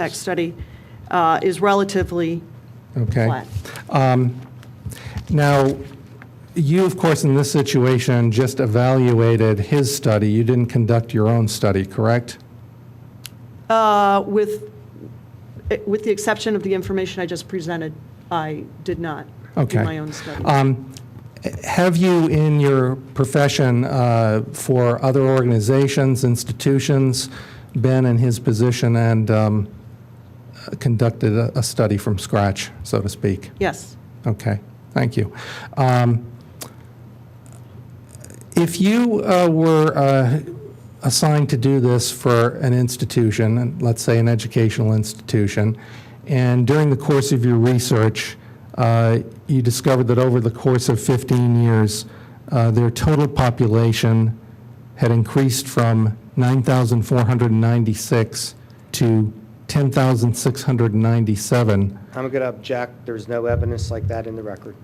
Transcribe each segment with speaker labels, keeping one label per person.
Speaker 1: impact study uh, is relatively
Speaker 2: Okay.
Speaker 1: flat.
Speaker 2: Now, you, of course, in this situation, just evaluated his study. You didn't conduct your own study, correct?
Speaker 1: Uh, With, eh, with the exception of the information I just presented, I did not do
Speaker 2: Okay. Um,
Speaker 1: my own study.
Speaker 2: Have you, in your profession, uh, for other organizations, institutions, been in his position and um, conducted a a study from scratch, so to speak?
Speaker 1: Yes.
Speaker 2: Okay, thank you. Um, If you uh, were uh, assigned to do this for an institution, and let's say an educational institution, and during the course of your research, uh, you discovered that over the course of 15 years, uh, their total population had increased from 9,496 to 10,697,
Speaker 3: I'm going to object. There's no evidence like that in the record.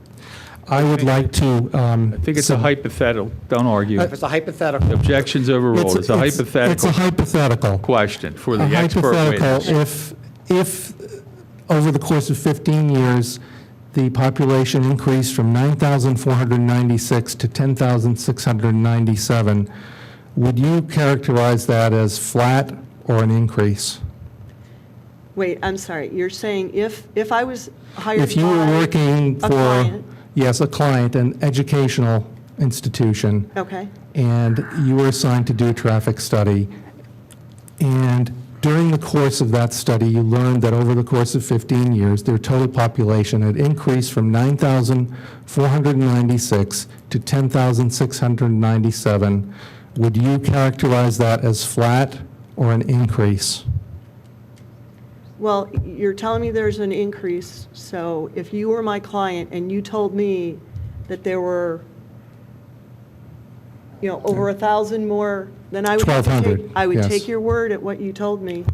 Speaker 2: I would like to. um,
Speaker 4: I think it's a hypothetical, don't argue.
Speaker 3: If it's a hypothetical,
Speaker 4: Objections overruled, it's a
Speaker 2: Uh, It's a
Speaker 4: hypothetical
Speaker 2: hypothetical.
Speaker 4: question for the
Speaker 2: A
Speaker 4: expert
Speaker 2: hypothetical,
Speaker 4: witness.
Speaker 2: if, if, over the course of 15 years, the population increased from 9,496 to 10,697, would you characterize that as flat or an increase?
Speaker 1: Wait, I'm sorry. You're saying if, if I was hired
Speaker 2: If you were
Speaker 1: by-
Speaker 2: working
Speaker 1: a
Speaker 2: for,
Speaker 1: client.
Speaker 2: yes, a client, an educational institution,
Speaker 1: Okay.
Speaker 2: and you were assigned to do a traffic study. And during the course of that study, you learned that over the course of 15 years, their total population had increased from 9,496 to 10,697. Would you characterize that as flat or an increase?
Speaker 1: Well, you're telling me there's an increase, so if you were my client and you told me that there were, you know, over a 1,000 more, then I would have to take-
Speaker 2: 1,200,
Speaker 1: I would
Speaker 2: yes.
Speaker 1: take your word at what you told me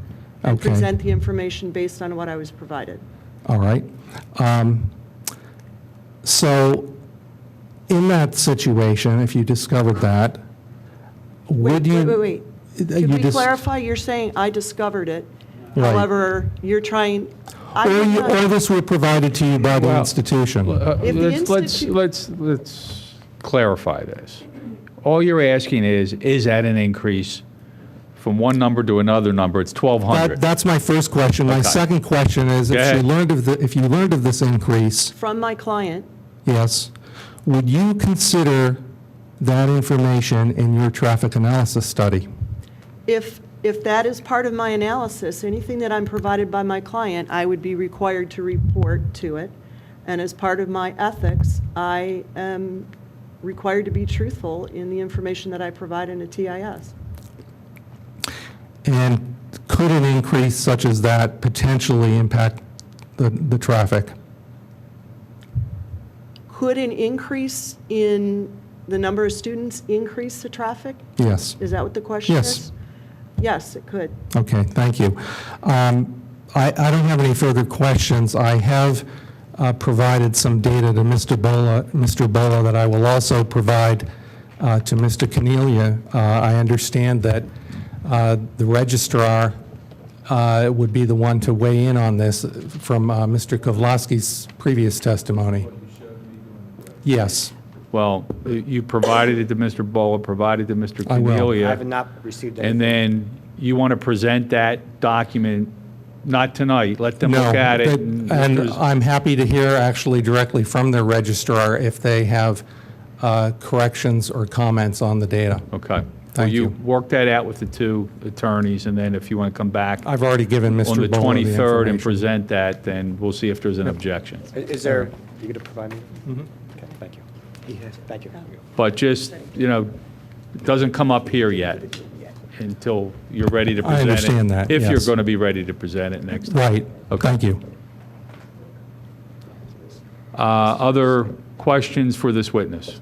Speaker 1: and
Speaker 2: Okay.
Speaker 1: present the information based on what I was provided.
Speaker 2: All right. Um, So in that situation, if you discovered that, would
Speaker 1: Wait,
Speaker 2: you? Uh,
Speaker 1: wait, wait, wait.
Speaker 2: you
Speaker 1: Could we
Speaker 2: dis-
Speaker 1: clarify, you're saying I discovered it,
Speaker 2: Right.
Speaker 1: however, you're trying, I
Speaker 2: Or,
Speaker 1: did
Speaker 2: you- or
Speaker 1: not,
Speaker 2: this were provided to you by the
Speaker 4: Well,
Speaker 2: institution.
Speaker 4: Uh,
Speaker 1: If the
Speaker 4: Let's, let's,
Speaker 1: institu-
Speaker 4: let's, let's clarify this. All you're asking is, is that an increase from one number to another number? It's
Speaker 2: That,
Speaker 4: 1,200.
Speaker 2: that's my first question. My
Speaker 4: Okay.
Speaker 2: second question is,
Speaker 4: Go
Speaker 2: if you
Speaker 4: ahead.
Speaker 2: learned of, the- if you learned of this increase,
Speaker 1: from my client,
Speaker 2: yes, would you consider that information in your traffic analysis study?
Speaker 1: If, if that is part of my analysis, anything that I'm provided by my client, I would be required to report to it. And as part of my ethics, I am required to be truthful in the information that I provide in a TIS.
Speaker 2: And could an increase such as that potentially impact the, the traffic?
Speaker 1: Could an increase in the number of students increase the traffic?
Speaker 2: Yes.
Speaker 1: Is that what the question
Speaker 2: Yes.
Speaker 1: is? Yes, it could.
Speaker 2: Okay, thank you. Um, I I don't have any further questions. I have uh, provided some data to Mr. Bola, Mr. Bola, that I will also provide uh, to Mr. Cornelia. Uh, I understand that uh, the registrar uh, would be the one to weigh in on this from uh, Mr. Kovlowski's previous testimony. Yes,
Speaker 4: Well, you provided it to Mr. Bola, provided to Mr.
Speaker 2: I will.
Speaker 4: Cornelia.
Speaker 3: I have not received
Speaker 4: And
Speaker 3: anything.
Speaker 4: then you want to present that document, not tonight, let them
Speaker 2: no.
Speaker 4: look at it.
Speaker 2: that- And I'm happy to hear actually directly from the registrar if they have uh, corrections or comments on the data.
Speaker 4: Okay. Well,
Speaker 2: Thank
Speaker 4: you
Speaker 2: you.
Speaker 4: work that out with the two attorneys, and then if you want to come back on
Speaker 2: I've already given Mr.
Speaker 4: the
Speaker 2: Bowler
Speaker 4: 23rd and
Speaker 2: information.
Speaker 4: present that, then we'll see if there's an objection.
Speaker 3: Is there, you going to provide me? Okay, thank you. Thank you.
Speaker 4: But just, you know, it doesn't come up here yet until you're ready to
Speaker 2: I
Speaker 4: present it.
Speaker 2: understand that,
Speaker 4: If you're
Speaker 2: yes.
Speaker 4: going to be ready to present it next time.
Speaker 2: Right,
Speaker 4: Okay.
Speaker 2: thank you.
Speaker 4: Uh, Other questions for this witness?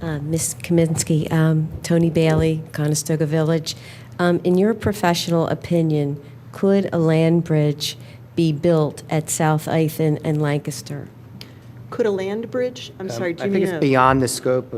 Speaker 5: Uh, Ms. Kaminsky, um, Tony Bailey, Conestoga Village. Um, In your professional opinion, could a land bridge be built at South Ithan and Lancaster?
Speaker 1: Could a land bridge, I'm sorry, do you
Speaker 3: I
Speaker 1: mean
Speaker 3: think
Speaker 1: a-
Speaker 3: Um,
Speaker 1: uh,
Speaker 3: it's beyond the scope